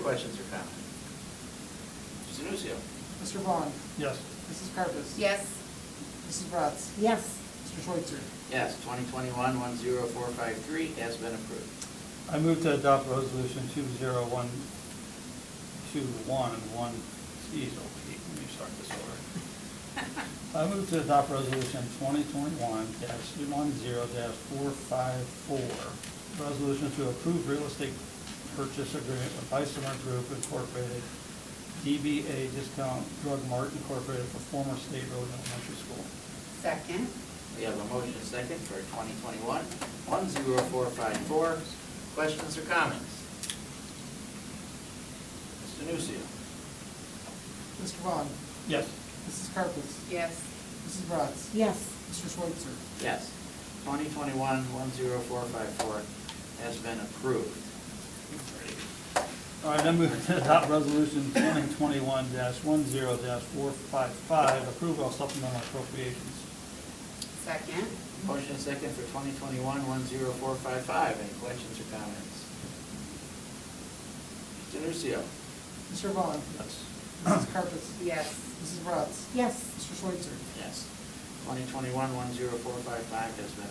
questions or comments? Mr. Nucio. Mr. Vaughn. Yes. Mrs. Carpus. Yes. Mrs. Bratz. Yes. Mr. Schweitzer. Yes, 2021-10453 has been approved. I move to adopt resolution two zero one two one one, geez, oh, gee, let me start this over. I move to adopt resolution twenty twenty-one dash one zero dash four five four. Resolution to approve real estate purchase agreement with Isomer Group Incorporated, DBA Discount Drug Mart Incorporated for former State Road Elementary School. Second. We have a motion second for 2021-10454. Questions or comments? Mr. Nucio. Mr. Vaughn. Yes. Mrs. Carpus. Yes. Mrs. Bratz. Yes. Mr. Schweitzer. Yes, 2021-10454 has been approved. All right, I move to adopt resolution twenty twenty-one one zero four five five, approval of supplemental appropriations. Second. Motion second for 2021-10455. Any questions or comments? Mr. Nucio. Mr. Vaughn. Yes. Mrs. Carpus. Yes. Mrs. Bratz. Yes. Mr. Schweitzer. Yes, 2021-10455 has been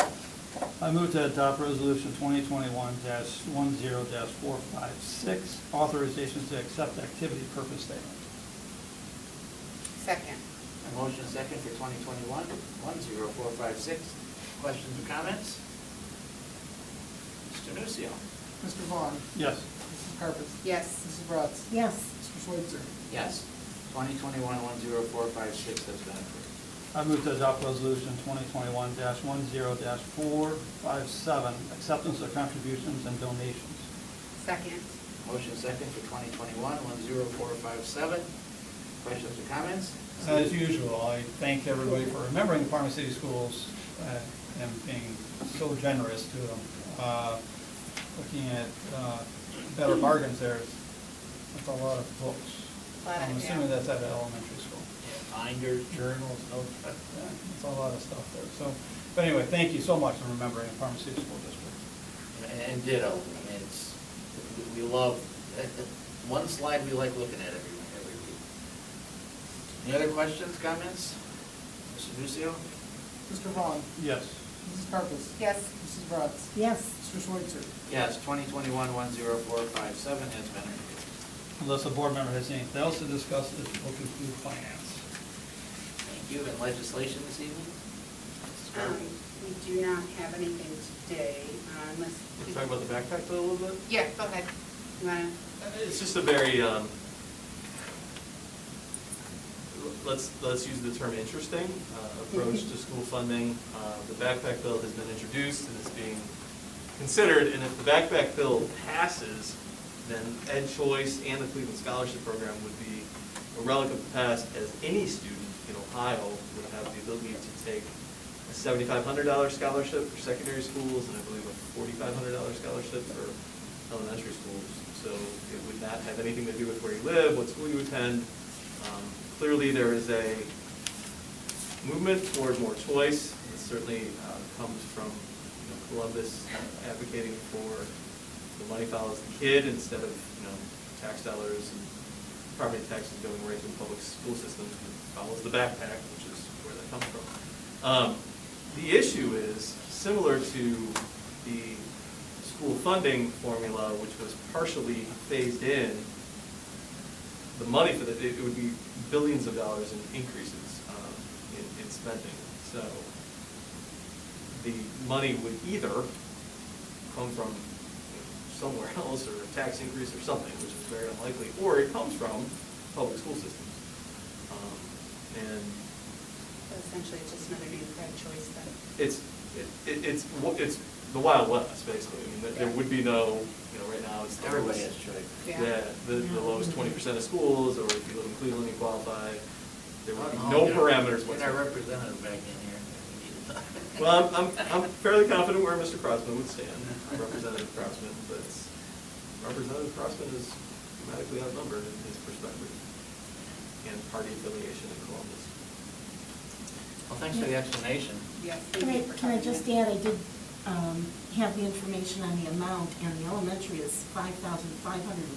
approved. I move to adopt resolution twenty twenty-one one zero four five six, authorizations to accept activity purpose statement. Second. A motion second for 2021-10456. Questions or comments? Mr. Nucio. Mr. Vaughn. Yes. Mrs. Carpus. Yes. Mrs. Bratz. Yes. Mr. Schweitzer. Yes, 2021-10456 has been approved. I move to adopt resolution twenty twenty-one one zero four five seven, acceptance of contributions and donations. Second. Motion second for 2021-10457. Questions or comments? As usual, I thank everybody for remembering the Parma City Schools uh, and being so generous to them. Uh, Looking at uh, better bargains there, that's a lot of books. Lot of, I'm assuming yeah. that's at an elementary school. Binders, Journals, notes, that- that- that's a lot of stuff there. So, but anyway, thank you so much for remembering the Parma City School District. and- and ditto. I mean, it's, we we love, that- that one slide we like looking at every, every week. Any other questions, comments? Mr. Nucio? Mr. Vaughn. Yes. Mrs. Carpus. Yes. Mrs. Bratz. Yes. Mr. Schweitzer. Yes, 2021-10457 has been approved. Unless a board member has anything else to discuss, this will conclude finance. Thank you. And legislation this evening? Mrs. Garber? Um, We do not have anything today uh, unless. Can we talk about the backpack though a little bit? Yeah, go ahead. You wanna- It's just a very, um, let's, let's use the term interesting uh, approach to school funding. Uh, The backpack bill has been introduced and is being considered, and if the backpack bill passes, then Ed Choice and the Cleveland Scholarship Program would be a relic of the past, as any student in Ohio would have the ability to take a seventy-five hundred dollar scholarship for secondary schools, and I believe a forty-five hundred dollar scholarship for elementary schools. So it would not have anything to do with where you live, what school you attend. Um, Clearly, there is a movement toward more choice. It certainly uh, comes from you know, Columbus advocating for the money follows the kid instead of, you know, tax dollars and property taxes going right to the public school systems. It follows the backpack, which is where that comes from. Um, The issue is similar to the school funding formula, which was partially phased in the money for that, it it would be billions of dollars in increases um, in, in spending. So the money would either come from somewhere else or a tax increase or something, which is very unlikely, or it comes from public school systems. Um, And Essentially, it's just another name for a choice then. it's, it- it, it's, wa- it's the Wild West, basically. I mean, there- there would be no, you know, right now, it's. the Everybody lowest- has choice. Yeah. Yeah, the, the lowest twenty percent of schools, or if you live in Cleveland, you qualify, there would be Oh, no yeah. parameters Get our whatsoever. representative back in here. We need to talk. Well, I'm, I'm I'm fairly confident where Mr. Crossman would stand, Representative Crossman, but Representative Crossman is dramatically outnumbered in his perspective and party affiliation in Columbus. Well, thanks for the explanation. Yes. thank Can I, you for can I coming just in. add, I did um, have the information on the amount, and the elementary is five thousand five hundred and